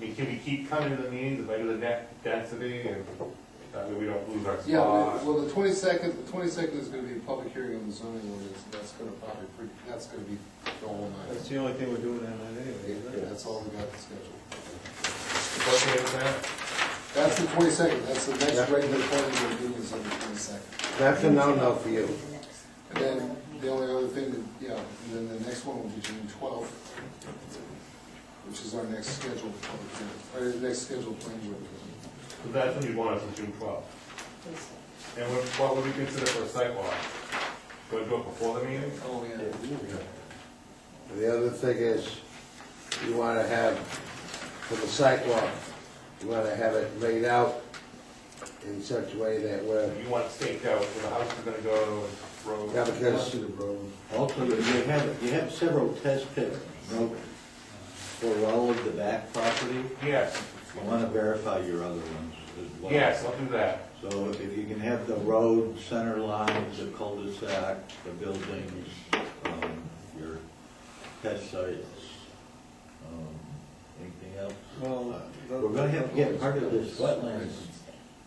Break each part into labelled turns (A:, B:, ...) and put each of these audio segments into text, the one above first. A: we, can we keep coming to the meetings at regular net density and that way we don't lose our
B: Yeah,
A: spot?
B: well, the twenty-second, the twenty-second is gonna be a public hearing on the zoning ordinance, and that's gonna probably, pre- that's gonna be the whole night.
C: That's the only thing we're doing that night anyway, isn't it?
B: That's all we got scheduled.
A: What's the name of that?
B: That's the twenty-second, that's the next
D: Yeah.
B: regular planning board meeting is on the twenty-second.
D: That's a no-no for you.
B: And then, the only other thing, that- yeah, and then the next one will be June twelfth, which is our next scheduled public hearing, or the next scheduled planning board meeting.
A: So that's when you want us on June twelfth. And what, what would we consider for a sidewalk? Do I do it before the meeting?
B: Oh, yeah.
D: The other thing is, you wanna have, for the sidewalk, you wanna have it laid out in such a way that we're,
A: You want it staked out where the house is gonna go and
D: yeah,
A: road?
D: because
E: Also, you have, you have several test pits, no, for all of the back property.
A: Yes,
E: I want to verify your other ones as well.
A: yes, I'll do that.
E: So if you can have the road, center lines, the cul-de-sac, the buildings, um, your test sites, um, anything else?
C: Well, the-
E: We're gonna have to get part of this wetlands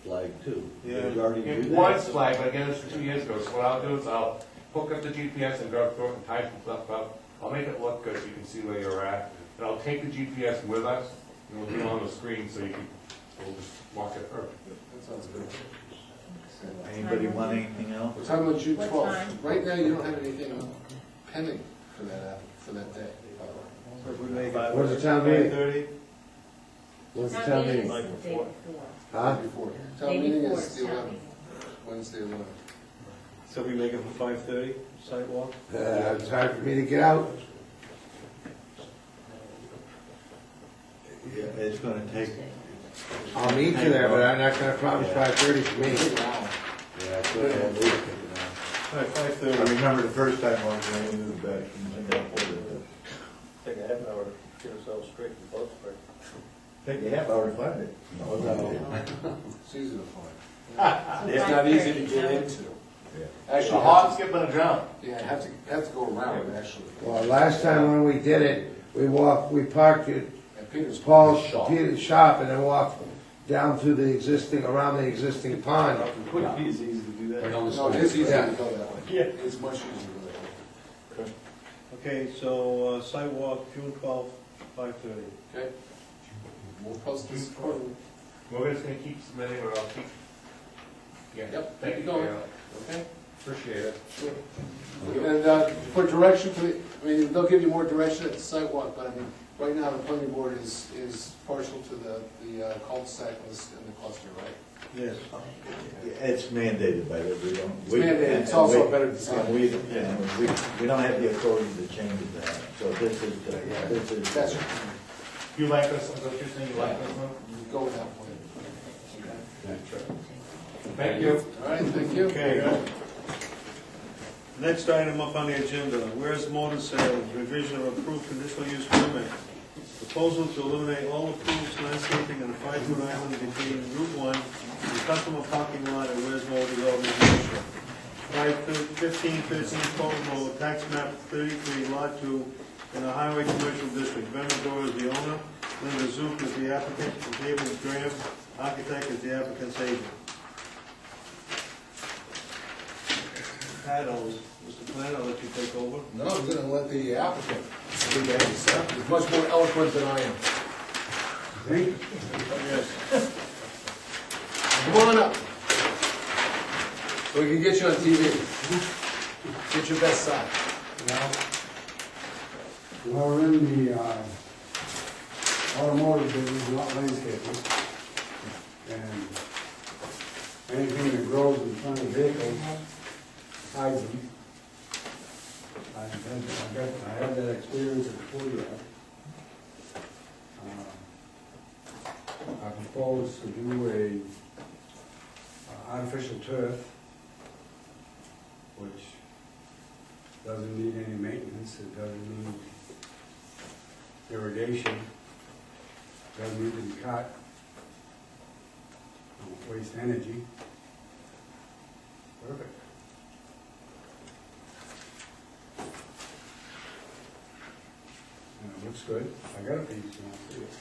E: flag too.
C: Yeah.
E: We already do
A: It
E: that.
A: was flagged, but again, this was two years ago, so what I'll do is I'll hook up the GPS and go through it and type some stuff up. I'll make it look good so you can see where you're at, and I'll take the GPS with us, and it'll be on the screen so you can, we'll just walk it, or
B: That sounds good.
E: Anybody want anything else?
B: We're talking about June
F: What time?
B: twelfth. Right now, you don't have anything pending for that, app- for that day. by the way.
C: If we make it-
D: What's the time being?
C: 5:30?
D: what's the
F: Town
D: time
F: meeting
D: meeting?
F: is the day before.
D: Huh?
B: Before.
F: Day
B: Town meeting
F: before
B: is
F: is
B: the
F: town
B: eleventh,
F: meeting.
B: Wednesday eleventh.
C: So we make it for five thirty, sidewalk?
D: Uh, it's hard for me to get out.
E: Yeah, It's gonna take,
D: I'll meet you there, but I'm not gonna promise five thirty for me.
B: Wow.
E: yeah, it's gonna take, you know.
C: All right, five
E: I
C: thirty.
E: remember the first time I was going into the back and I got ordered.
G: Take a half an hour to get ourselves straight and both straight.
E: Take a half hour to find it. No,
D: no.
B: It's easy to find. Uh,
F: It's not easy to get in.
B: into.
E: Yeah.
B: Actually,
A: a
B: you have
A: hop, skip, and a jump.
B: to- yeah, have to, have to go around, actually.
D: Well, last time when we did it, we walked, we parked at
B: At Peter's.
D: Paul's,
B: Shop.
D: Peter's shop and then walked down through the existing, around the existing pond.
C: Wouldn't be as easy to do that.
B: No, it is easy
D: Yeah.
B: to go that way. Yeah. It's much easier to go that way.
C: Okay, so uh, sidewalk, June twelfth, five thirty.
B: Okay? We'll post this accordingly.
A: We're just gonna keep submitting, or I'll keep. Yeah,
B: Yep,
A: thank you,
B: keep going.
A: Gail.
B: Okay?
A: appreciate it.
B: Sure. And uh, for direction, for the- I mean, they'll give you more direction at the sidewalk, but I mean, right now, the planning board is, is partial to the, the uh, cul-de-sac and the- and the cluster, right?
C: Yes.
E: It's mandated by the, we don't.
B: It's
E: we-
B: mandated. It's
E: and
B: also
E: we-
B: better design.
E: and We, and we, we don't have the authority to change it that, so this is, the- this is.
B: That's,
A: You like us, is that what you're saying, you like us, huh?
B: you go with that plan.
A: Thank you.
B: All right, thank you.
C: Okay. Next item up on the agenda, whereas motor sales, revision of approved conditional use permit. Proposal to eliminate all approved landscaping on the five-foot island between Route One and customer parking lot at Where's Motor Development Commission. Five fifteen thirteen Fulton Road, tax map thirty-three, lot two, in the Highway Commercial District. Ben Medora is the owner, Linda Zook is the applicant, and David Graham, architect, is the applicant's agent. Paddles, Mr. Plant, I'll let you take over.
B: No, I'm gonna let the applicant do that himself. He's much more eloquent than I am.
C: Yes.
B: Come on up. We can get you on TV. Get your best side.
H: We're in the uh, automotive business, not landscaping. And anything that grows in front of vehicles, hides them. I've had, I've got, I had that experience at Ford. I propose Uh, to do a uh, artificial turf, which doesn't need any maintenance, it doesn't need irrigation, doesn't need to be cut, don't waste energy. Perfect. And it looks good, I got a piece, and I'll see it.